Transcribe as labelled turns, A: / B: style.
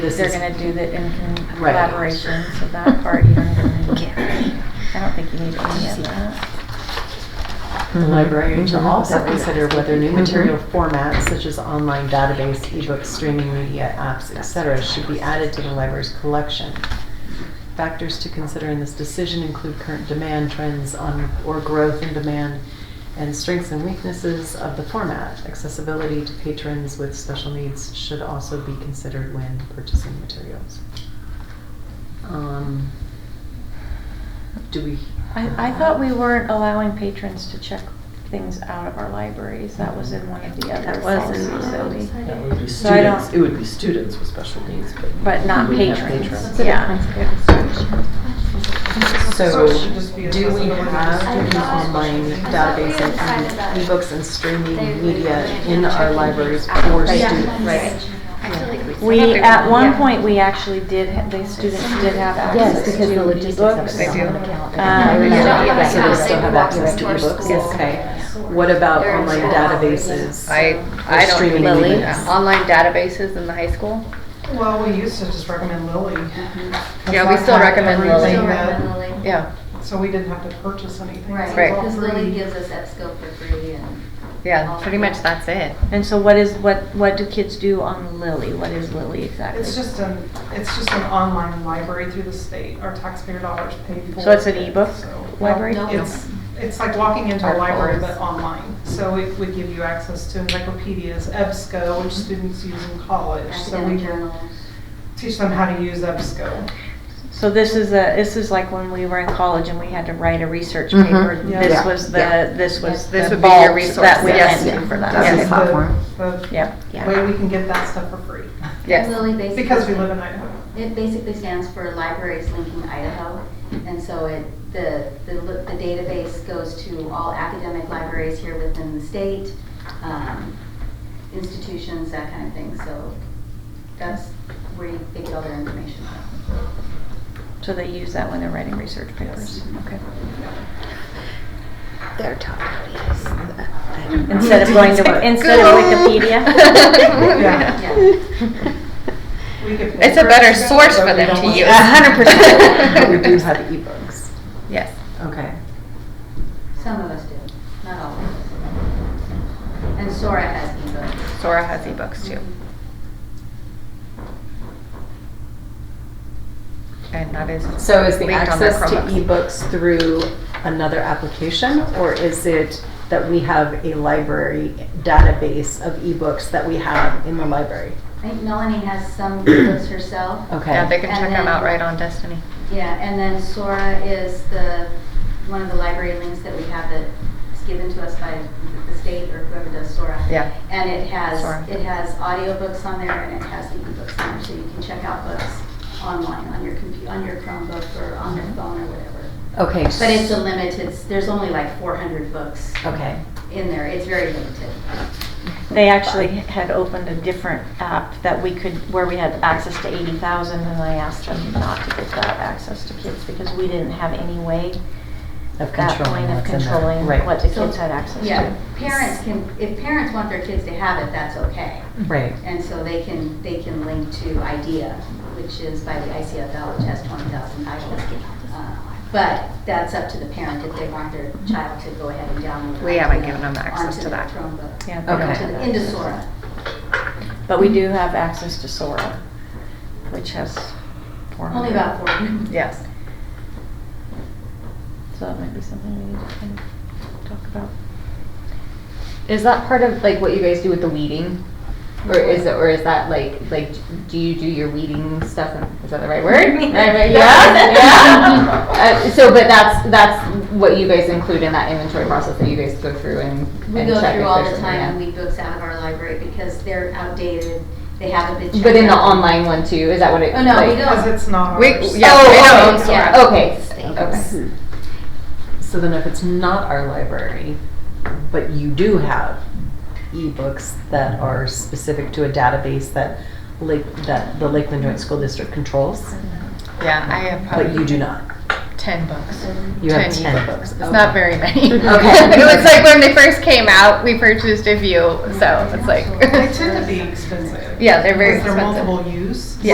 A: This
B: They're
A: is-
B: gonna do that in con-
A: Right.
B: collaboration, so that part you don't even need.
C: Okay.
B: I don't think you need any of that.
A: The librarian shall
D: Mhm.
A: also consider whether new
B: Mm-hmm.
D: Mhm.
A: material formats such as online database, ebooks, streaming media, apps, etc., should be added to the library's collection. Factors to consider in this decision include current demand trends on, or growth in demand, and strengths and weaknesses of the format. Accessibility to patrons with special needs should also be considered when purchasing materials. Um, Do we?
B: I, I thought we weren't allowing patrons to check things out of our libraries. That was in one of the other
C: That was
B: policies
C: in one
B: that
C: of
B: we,
C: those. I
E: That would be
B: So I don't-
E: students, it would be students with special needs, but.
B: but not
E: we wouldn't have
B: patrons,
E: patrons.
B: yeah.
A: So,
F: it should just be
A: do we
F: accessible.
A: have the online database and e- ebooks and streaming media in our libraries for
B: Right.
A: students?
B: Right.
C: I feel like we.
B: We, at one
C: Yeah.
B: point, we actually did, ha- the students did have access
D: Yes,
B: to
D: because the logistics of
B: ebooks.
D: it is
F: They do.
D: on the calendar.
B: Um,
D: I remember
B: Yeah.
D: that.
A: So they still have access to ebooks?
C: Yes.
A: Okay. What about
C: They're in
A: online
C: school.
A: databases?
G: I,
A: Or
G: I don't,
A: streaming
G: Lily,
A: media.
G: online databases in the high school?
F: Well, we used to just recommend Lily.
G: Yeah, we still recommend Lily.
F: Everything that-
G: Yeah,
F: So we didn't have to purchase anything.
H: Right,
G: Right.
H: because Lily gives us that skill for free and.
G: yeah, pretty much that's it.
B: And so what is, what, what do kids do on Lily? What is Lily exactly?
F: It's just an, it's just an online library through the state, our taxpayer dollars paid for.
B: So it's an
F: it,
B: ebook
F: so-
B: library?
H: No.
F: It's, it's like walking into a
G: Articles.
F: library but online. So it would give you access to encyclopedias, E EBSCO, which students use in college. So we
H: Academic journals.
F: teach them how to use E EBSCO.
B: So this is a, this is like when we were in college and we had to write a research
D: Mhm.
B: paper.
F: Yeah.
B: This
D: Yeah.
B: was
D: Yeah.
B: the, this was
G: This
B: the
G: would be your
B: vault
G: resource,
B: that we
G: yes.
B: went to
D: Yeah.
B: for
D: That's
F: This
B: that.
F: is
D: his platform.
F: The the
B: Yep.
D: Yeah.
F: way we can get that stuff for free.
G: Yes,
H: Lily basically.
F: Because we live in Idaho.
H: It basically stands for Libraries Linking Idaho. And so it, the, the li- the database goes to all academic libraries here within the state, um, institutions, that kind of thing. So that's where you- they get all their information from.
B: So they use that when they're writing research papers. Okay.
C: Their topic is. the-
B: Instead of going to, instead of Wikipedia.
F: Yeah.
H: Yeah.
F: We could pay
G: It's a
F: for it
G: better
F: to go,
G: source
F: but
G: for
F: we
G: them
F: don't
G: to
F: want
G: use.
A: But we do have ebooks.
G: Yes.
A: Okay.
H: Some of us do, not all of us. And Sora has ebooks.
G: Sora has ebooks too. And that is.
A: So is the
G: linked on their
A: access to
G: Chromebooks.
A: ebooks through another application? Or is it that we have a library database of ebooks that we have in the library?
H: I think Melanie has some ebooks herself.
A: Okay.
G: Yeah, they can check
H: And
G: them out
H: then-
G: right on Destiny.
H: Yeah, and then Sora is the, one of the library links that we have that's given to us by the state or whoever does Sora.
G: Yeah.
H: And it has,
G: Sora.
H: it has audiobooks on there and it has ebooks on there, so you can check out books online on your compu, on your Chromebook or on your phone or whatever.
A: Okay.
H: But it's a limited, there's only like four hundred books
A: Okay.
G: Oh.
H: in there, it's very limited.
B: They actually had opened a different app that we could, where we had access to eighty thousand, and I asked them not to give that access to kids because we didn't have any way
A: Of
B: at that
A: controlling
B: point of
A: what's in there.
B: controlling
A: Right.
B: what the
H: So-
B: kids had access
H: Yeah,
B: to.
H: parents can, if parents want their kids to have it, that's okay.
A: Right.
H: And so they can, they can link to IDEA, which is by the ICFL, which has 20,000 titles. Uh, But that's up to the parent if they want their child to go ahead and download.
G: We haven't
H: IDEA
G: given them access
H: onto
G: to
H: their
G: that.
H: Chromebook.
B: Yeah,
A: Okay.
H: Onto the- Into Sora.
B: But we do have access to Sora, which has four hundred.
H: Only about 400.
G: Yes.
B: So that might be something we need to kind of talk about.
D: Is that part of like what you guys do with the weeding? Or is it, or is that like, like, do you do your weeding stuff? and- Is that the right word? Right, right, Yeah, yeah. Uh, So, but that's, that's what you guys include in that inventory process that you guys go through and.
H: We
D: and
H: go
D: check
H: through
D: if
H: all
D: there's something,
H: the time
D: yeah.
H: and weed books out of our library because they're outdated, they haven't been checked.
D: But in the
H: out.
D: online one too, is that what it?
H: Oh, no, we
D: like-
H: don't.
F: Because it's not
G: We,
F: ours.
G: yeah, we don't own
H: Oh, okay,
G: Sora.
H: yeah.
D: Okay, okay.
A: Hmm. So then if it's not our library, but you do have ebooks that are specific to a database that Lake, that the Lakeland Joint School District controls,
G: Mm-hmm. Yeah, I have
A: but you
G: probably
A: do not.
G: ten books.
A: You have ten Oh.
G: ebooks.
A: books.
G: It's not very many.
D: Okay.
G: It was like when they first came out, we purchased a few, so it's like.
F: They tend to be expensive.
G: Yeah, they're very
F: Because
G: expensive.
F: They're multiple use.